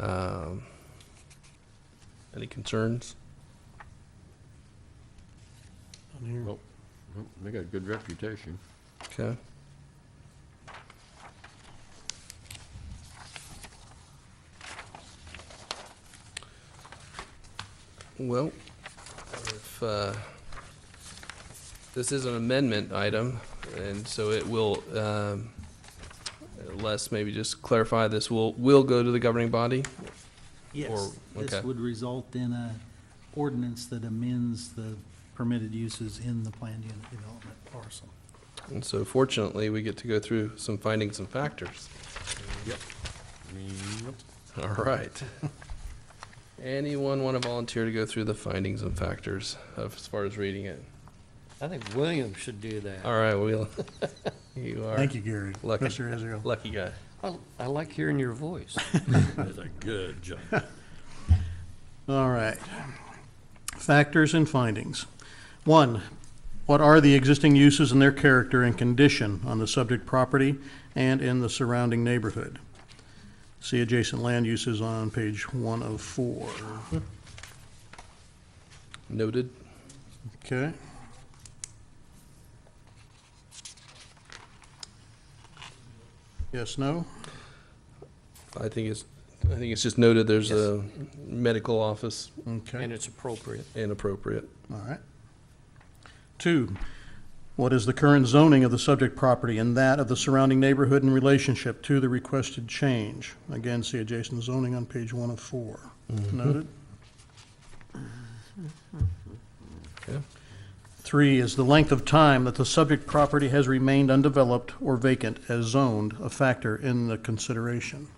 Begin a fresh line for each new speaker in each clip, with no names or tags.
Um, Any concerns?
Well, Oh, They got a good reputation.
Okay. Well, if, uh, this is an amendment item, and so it will, um, Les, maybe just clarify this, will, will go to the governing body?
Yes,
Or-
this
okay.
would result in a ordinance that amends the permitted uses in the planned unit development parcel.
And so fortunately, we get to go through some findings and factors.
I mean,
All right. Anyone want to volunteer to go through the findings and factors of, as far as reading it?
I think William should do that.
All right, Will. You are
Thank you, Gary.
Lucky.
Mr. Israel.
lucky guy.
I, I like hearing your voice.
That's a good job.
All right. Factors and findings. One, what are the existing uses and their character and condition on the subject property and in the surrounding neighborhood? See adjacent land uses on page one of four.
Noted.
Okay. Yes, no?
I think it's, I think it's just noted there's a medical office
Okay.
And it's appropriate.
inappropriate.
All right. Two, what is the current zoning of the subject property and that of the surrounding neighborhood in relationship to the requested change? Again, see adjacent zoning on page one of four. Noted.
Okay.
Three is the length of time that the subject property has remained undeveloped or vacant as zoned, a factor in the consideration.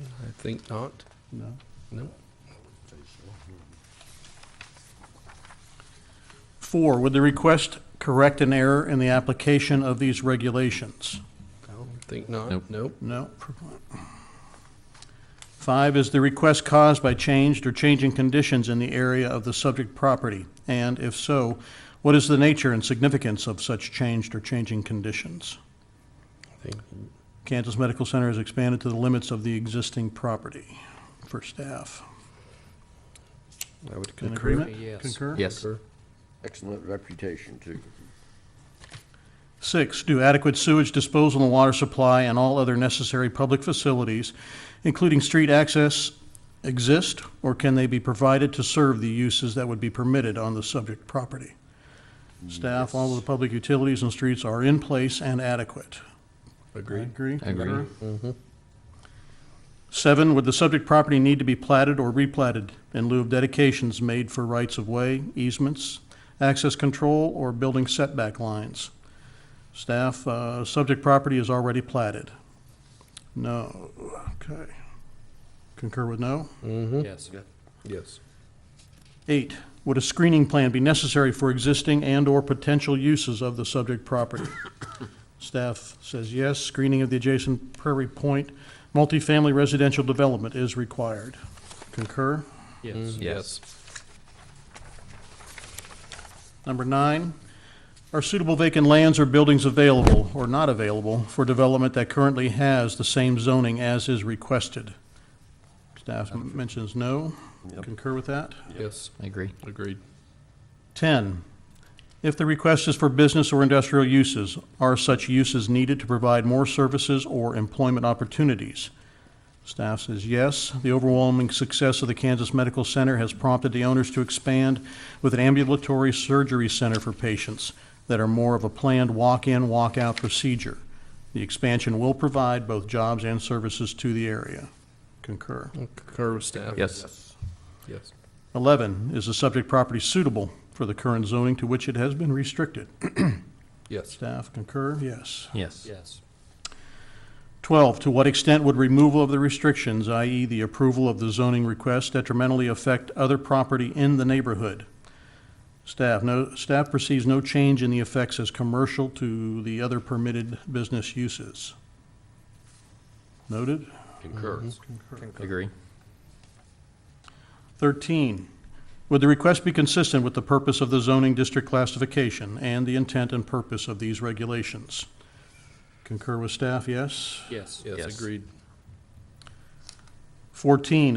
I think not.
No.
No.
Four, would the request correct an error in the application of these regulations?
I think not.
Nope.
Nope.
No. Five is the request caused by changed or changing conditions in the area of the subject property, and if so, what is the nature and significance of such changed or changing conditions?
I think
Kansas Medical Center has expanded to the limits of the existing property for staff.
I would
In
concur.
agreement?
Yes.
Concur?
Yes.
Excellent reputation, too.
Six, do adequate sewage disposal and water supply and all other necessary public facilities, including street access, exist, or can they be provided to serve the uses that would be permitted on the subject property? Staff, all of the public utilities and streets are in place and adequate.
Agreed.
Agree?
Agree.
Seven, would the subject property need to be platted or replatted in lieu of dedications made for rights-of-way, easements, access control, or building setback lines? Staff, uh, subject property is already platted. No, okay. Concur with no?
Mm-hmm.
Yes.
Yes.
Eight, would a screening plan be necessary for existing and/or potential uses of the subject property? Staff says yes, screening of the adjacent Prairie Point multifamily residential development is required. Concur?
Yes.
Yes.
Number nine, are suitable vacant lands or buildings available or not available for development that currently has the same zoning as is requested? Staff m- mentions no. Concur with that?
Yes.
I agree.
Agreed.
10, if the request is for business or industrial uses, are such uses needed to provide more services or employment opportunities? Staff says yes. The overwhelming success of the Kansas Medical Center has prompted the owners to expand with an ambulatory surgery center for patients that are more of a planned walk-in, walk-out procedure. The expansion will provide both jobs and services to the area. Concur.
Concur with staff.
Yes.
Yes.
11, is the subject property suitable for the current zoning to which it has been restricted?
Yes.
Staff concur, yes.
Yes.
Yes.
12, to what extent would removal of the restrictions, i.e. the approval of the zoning request detrimentally affect other property in the neighborhood? Staff, no, staff perceives no change in the effects as commercial to the other permitted business uses. Noted?
Concur.
Mm-hmm.
Agree.
13, would the request be consistent with the purpose of the zoning district classification and the intent and purpose of these regulations? Concur with staff, yes?
Yes.
Yes,
Yes.
agreed.
14,